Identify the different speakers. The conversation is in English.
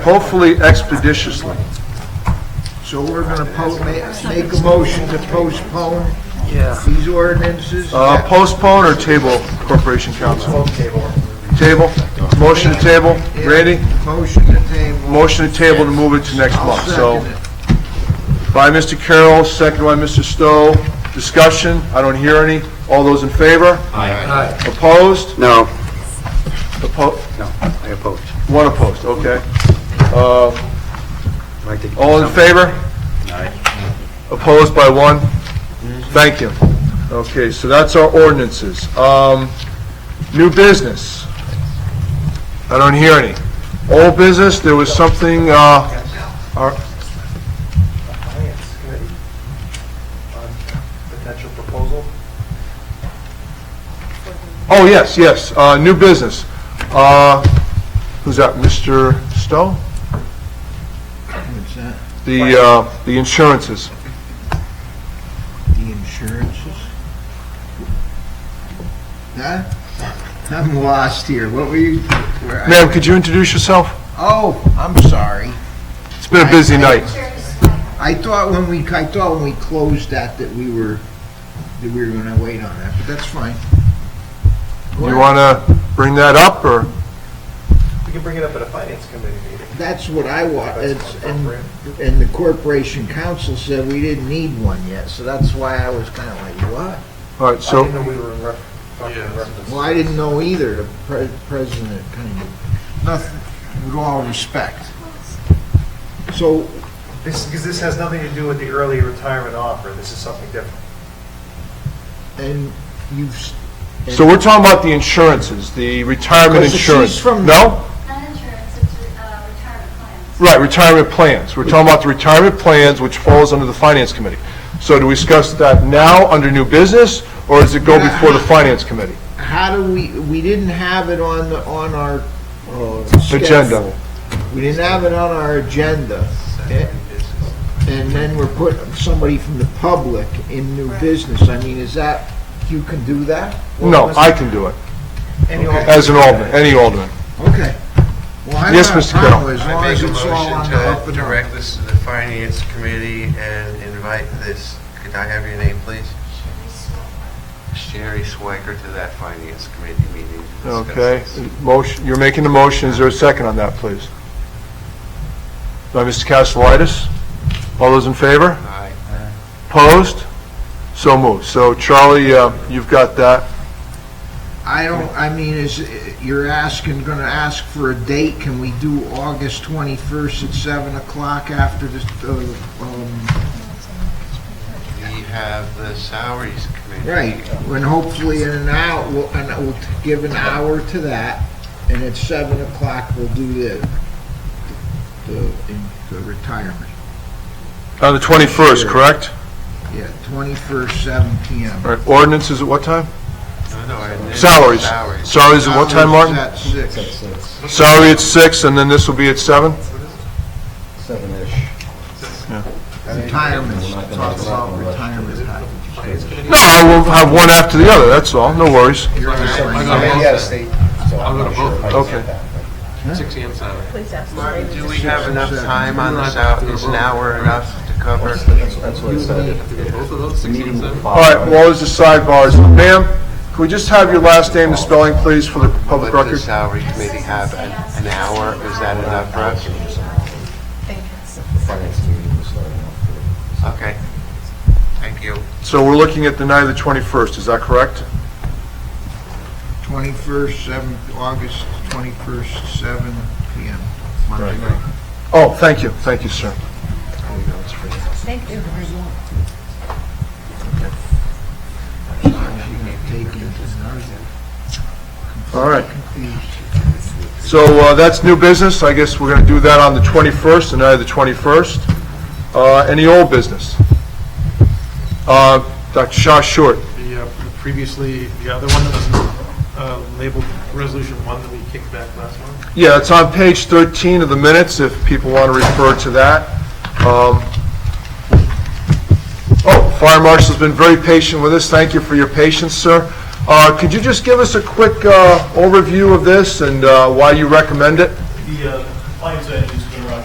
Speaker 1: hopefully expeditiously.
Speaker 2: So we're gonna po- ma- make a motion to postpone these ordinances?
Speaker 1: Uh, Postpone or table Corporation Council? Table? Motion to table? Randy?
Speaker 2: Motion to table.
Speaker 1: Motion to table to move it to next month, so.
Speaker 2: Second it.
Speaker 1: By Mr. Carroll, second by Mr. Stowe. Discussion? I don't hear any. All those in favor?
Speaker 2: Aye.
Speaker 1: Opposed?
Speaker 3: No,
Speaker 1: Oppo-
Speaker 3: no, I oppose.
Speaker 1: One opposed, okay. Uh,
Speaker 3: I'd like to-
Speaker 1: All in favor? Opposed by one? Thank you. Okay, so that's our ordinances. Um, New business? I don't hear any. Old business, there was something, uh, our-
Speaker 4: Finance Committee on potential proposal.
Speaker 1: oh, yes, yes, uh, new business. Uh, Who's that, Mr. Stowe?
Speaker 2: What's that?
Speaker 1: The, uh, the insurances.
Speaker 2: The insurances? Huh? I'm lost here. What were you? where I-
Speaker 1: Ma'am, could you introduce yourself?
Speaker 2: Oh, I'm sorry.
Speaker 1: It's been a busy night.
Speaker 2: I thought when we, I thought when we closed that, that we were, that we were gonna wait on that, but that's fine.
Speaker 1: You want to bring that up, or?
Speaker 4: We can bring it up at a Finance Committee meeting.
Speaker 2: That's what I want, it's, and,
Speaker 4: Appropriate.
Speaker 2: and the corporation council said we didn't need one yet, so that's why I was kinda like, what?
Speaker 1: All right,
Speaker 4: I
Speaker 1: so,
Speaker 4: didn't know we were in ref- talking in reference.
Speaker 2: Well, I didn't know either, the pre- president kind of, nothing, with all respect. So,
Speaker 4: This, because this has nothing to do with the early retirement offer, this is something different.
Speaker 2: and you've, s-
Speaker 1: so we're talking about the insurances, the retirement
Speaker 2: Because she's
Speaker 1: insurance.
Speaker 2: from-
Speaker 1: No?
Speaker 5: Not insurance, it's uh, retirement plans.
Speaker 1: Right, retirement plans. We're talking about the retirement plans, which falls under the Finance Committee. So do we discuss that now under new business, or does it go before the Finance Committee?
Speaker 2: how do we, we didn't have it on the, on our, uh, schedule.
Speaker 1: Agenda.
Speaker 2: We didn't have it on our agenda. Eh, And then we're putting somebody from the public in new business. I mean, is that, you can do that?
Speaker 1: No, I can do it,
Speaker 4: Any
Speaker 1: as an alderman, any alderman.
Speaker 2: Okay. Well, I
Speaker 1: Yes,
Speaker 2: don't have
Speaker 1: Mr.
Speaker 2: a problem
Speaker 1: Carroll.
Speaker 2: As long
Speaker 6: I
Speaker 2: as
Speaker 6: make a
Speaker 2: it's all on the up
Speaker 6: motion to
Speaker 2: and up.
Speaker 6: direct this to the Finance Committee and invite this, could I have your name, please? Sherry Swiker to that Finance Committee meeting. to discuss
Speaker 1: Okay,
Speaker 6: this.
Speaker 1: motion, you're making the motion, is there a second on that, please? By Mr. Castellitis? All those in favor?
Speaker 6: Aye.
Speaker 1: Opposed? So moved. So Charlie, uh, you've got that.
Speaker 2: I don't, I mean, is, you're asking, gonna ask for a date. Can we do August 21st at 7 o'clock after this, uh, um,
Speaker 6: We have the Salaries Committee.
Speaker 2: Right, and hopefully in an hour, we'll, and we'll give an hour to that, and at seven o'clock, we'll do the, the, the retirement.
Speaker 1: On the 21st, correct?
Speaker 2: Yeah, twenty-first, seven P M.
Speaker 1: All right, ordinance is at what time?
Speaker 6: No, no, I didn't-
Speaker 1: Salaries.
Speaker 6: Salaries.
Speaker 1: Salaries at what time, Martin?
Speaker 2: At six.
Speaker 1: Salary at six, and then this will be at seven?
Speaker 2: Retirement, talk about retirement.
Speaker 1: No, I will have one after the other, that's all, no worries.
Speaker 2: You're on the
Speaker 6: I
Speaker 2: line.
Speaker 6: got
Speaker 4: out of state.
Speaker 6: I'm gonna vote.
Speaker 1: Okay.
Speaker 6: Six AM salary.
Speaker 7: Please ask the
Speaker 6: Martin,
Speaker 7: lady.
Speaker 6: do we have enough time on the sal, is an hour enough to cover?
Speaker 1: All right, well, there's the sidebars. Ma'am, can we just have your last name and spelling, please, for the public
Speaker 6: What
Speaker 1: record?
Speaker 6: does the Salary Committee have, an an hour, is that enough for us?
Speaker 7: Thank you.
Speaker 6: Okay. Thank you.
Speaker 1: So we're looking at the night of the 21st, is that correct?
Speaker 2: Twenty-first, seven, August twenty-first, seven P M. Monday night.
Speaker 1: Oh, thank you, thank you, sir.
Speaker 7: Thank you.
Speaker 2: She's gonna take it, and I was
Speaker 1: All right,
Speaker 2: confused.
Speaker 1: so uh, that's new business, I guess we're going to do that on the 21st, the night of the 21st. Uh, Any old business? Uh, Dr. Shaw Short,
Speaker 8: The uh, previously, the other one that was uh, labeled Resolution 1 that we kicked back last month.
Speaker 1: Yeah, it's on page 13 of the minutes, if people want to refer to that. Um, Oh, Fire Marshal's been very patient with us, thank you for your patience, sir. Uh, Could you just give us a quick uh, overview of this and uh, why you recommend it?